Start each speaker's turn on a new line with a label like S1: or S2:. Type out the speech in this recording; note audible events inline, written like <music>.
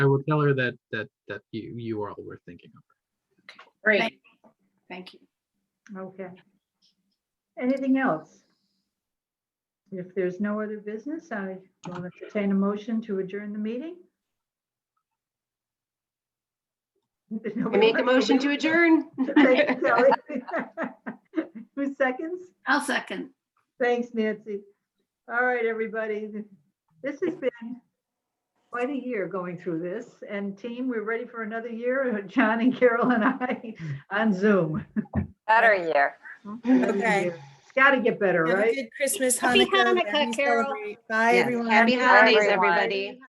S1: I will tell her that, that, that you, you all were thinking of.
S2: Great. Thank you.
S3: Okay. Anything else? If there's no other business, I will entertain a motion to adjourn the meeting.
S4: I make a motion to adjourn.
S3: Thank you, Kelly. <laughs> Who seconds?
S2: I'll second.
S3: Thanks, Nancy. All right, everybody. This has been quite a year going through this. And team, we're ready for another year, <laughs> John and Carol and I on Zoom.
S5: Better year.
S3: Another
S6: Okay.
S3: year. It's got to get better,
S6: Have a
S3: right?
S6: good Christmas,
S4: Happy
S6: Hanukkah.
S4: Hanukkah,
S6: and
S4: Carol.
S6: celebrate. Bye,
S4: Yes,
S6: everyone.
S4: Happy
S5: Bye,
S4: holidays,
S5: everyone.
S4: everybody.